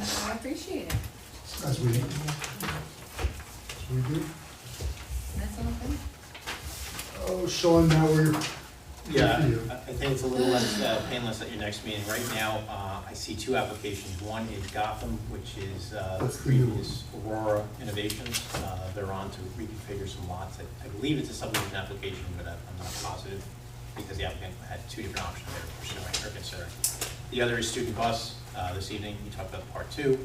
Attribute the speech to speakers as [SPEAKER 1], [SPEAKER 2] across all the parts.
[SPEAKER 1] appreciate it.
[SPEAKER 2] As we, as we do.
[SPEAKER 1] That's all good.
[SPEAKER 2] Oh, Sean, now we're,
[SPEAKER 3] Yeah,
[SPEAKER 2] Good for you.
[SPEAKER 3] I I think it's a little less uh, painless at your next meeting. Right now, uh, I see two applications. One is Gotham, which is uh,
[SPEAKER 2] That's the new one.
[SPEAKER 3] previous Aurora Innovations. Uh, They're on to reconfigure some lots. I I believe it's a subdivision application, but I'm I'm not positive because the applicant had two different options they were pursuing or considering. The other is Student Bus. Uh, This evening, you talked about part two.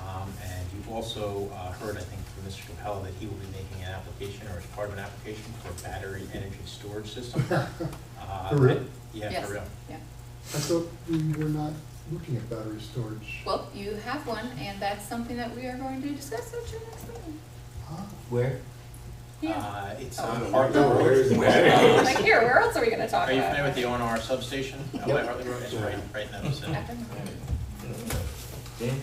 [SPEAKER 3] Um, And you've also uh, heard, I think, from Mr. Capella that he will be making an application or as part of an application for a battery energy storage system. Uh,
[SPEAKER 2] For real?
[SPEAKER 3] Yeah,
[SPEAKER 1] Yes,
[SPEAKER 3] for real.
[SPEAKER 1] Yeah.
[SPEAKER 2] I thought we were not looking at battery storage.
[SPEAKER 1] Well, you have one, and that's something that we are going to discuss at your next meeting.
[SPEAKER 2] Huh?
[SPEAKER 4] Where?
[SPEAKER 1] Yeah.
[SPEAKER 3] Uh, It's
[SPEAKER 1] Oh.
[SPEAKER 3] on Hartley
[SPEAKER 5] No,
[SPEAKER 3] Road.
[SPEAKER 5] where's the- Where?
[SPEAKER 1] Like here, where else are we gonna talk
[SPEAKER 3] Uh, Are you familiar
[SPEAKER 1] about?
[SPEAKER 3] with the
[SPEAKER 1] it?
[SPEAKER 3] O and R substation? out by
[SPEAKER 4] Yep.
[SPEAKER 3] Hartley Road, it's right, right in that vicinity.
[SPEAKER 1] After the meeting.
[SPEAKER 4] Dan?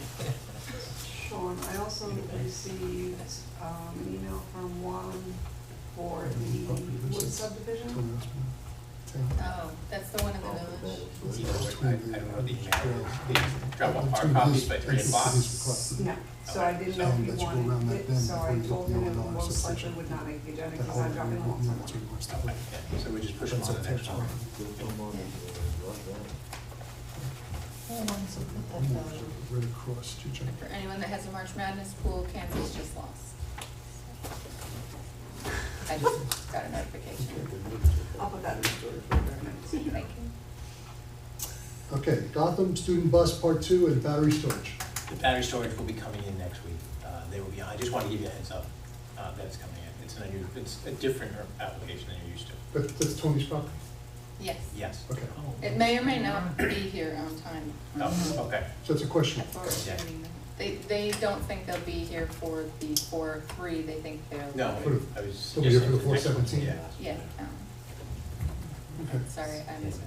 [SPEAKER 5] Sean, I also received um, an email from Juan for the Wood subdivision.
[SPEAKER 2] Someone else,
[SPEAKER 5] Uh,
[SPEAKER 2] man. Ten.
[SPEAKER 1] Oh, that's the one in the village.
[SPEAKER 3] It's either- I I don't know the email, They drop off hard
[SPEAKER 2] Between
[SPEAKER 3] copies
[SPEAKER 2] his-
[SPEAKER 3] by three
[SPEAKER 2] his-
[SPEAKER 3] o'clock.
[SPEAKER 2] his request.
[SPEAKER 5] No, so I didn't know
[SPEAKER 2] Um,
[SPEAKER 5] if you
[SPEAKER 2] let's go around
[SPEAKER 5] wanted
[SPEAKER 2] that
[SPEAKER 5] it,
[SPEAKER 2] then
[SPEAKER 5] so I
[SPEAKER 2] before you
[SPEAKER 5] told
[SPEAKER 2] put
[SPEAKER 5] him
[SPEAKER 2] the
[SPEAKER 5] it
[SPEAKER 2] online
[SPEAKER 5] most likely
[SPEAKER 2] substation.
[SPEAKER 5] would not make the agenda
[SPEAKER 2] That
[SPEAKER 5] because I'm
[SPEAKER 2] whole-
[SPEAKER 5] dropping them off
[SPEAKER 2] no, that's what
[SPEAKER 5] somewhere.
[SPEAKER 2] he wants to
[SPEAKER 3] Okay,
[SPEAKER 2] put.
[SPEAKER 3] yeah, So we just push them
[SPEAKER 2] That's
[SPEAKER 3] on
[SPEAKER 2] a
[SPEAKER 3] to the
[SPEAKER 2] text
[SPEAKER 3] next one.
[SPEAKER 2] one. Right across to John.
[SPEAKER 1] For anyone that has a March Madness pool, Kansas just lost. I just got a notification.
[SPEAKER 5] I'll put that in the storage for the next.
[SPEAKER 1] Thank you.
[SPEAKER 2] Okay, Gotham Student Bus Part Two and battery storage.
[SPEAKER 3] The battery storage will be coming in next week. Uh, They will be, I just want to give you a heads up uh, that it's coming in. It's an unusual, it's a different application than you're used to.
[SPEAKER 2] But that's Tony's property.
[SPEAKER 1] Yes.
[SPEAKER 3] Yes.
[SPEAKER 2] Okay,
[SPEAKER 1] It may or may not be here on time.
[SPEAKER 3] Oh, okay.
[SPEAKER 2] so that's a question.
[SPEAKER 1] That's all right. They, they don't think they'll be here for the four, three, they think they'll.
[SPEAKER 3] No,
[SPEAKER 2] For-
[SPEAKER 3] I was.
[SPEAKER 2] They'll be here for the
[SPEAKER 3] yes, next one,
[SPEAKER 2] 417.
[SPEAKER 3] Yeah.
[SPEAKER 1] Yeah, um,
[SPEAKER 2] Okay.
[SPEAKER 1] sorry, I missed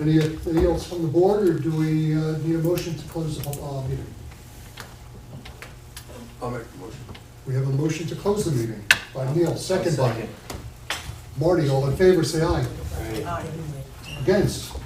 [SPEAKER 2] Any, any else from the board, or do we uh, need a motion to close the pub- uh, meeting?
[SPEAKER 4] I'll make the motion.
[SPEAKER 2] We have a motion to close the meeting by Neil, second by Marty, all in favor, say aye. Against?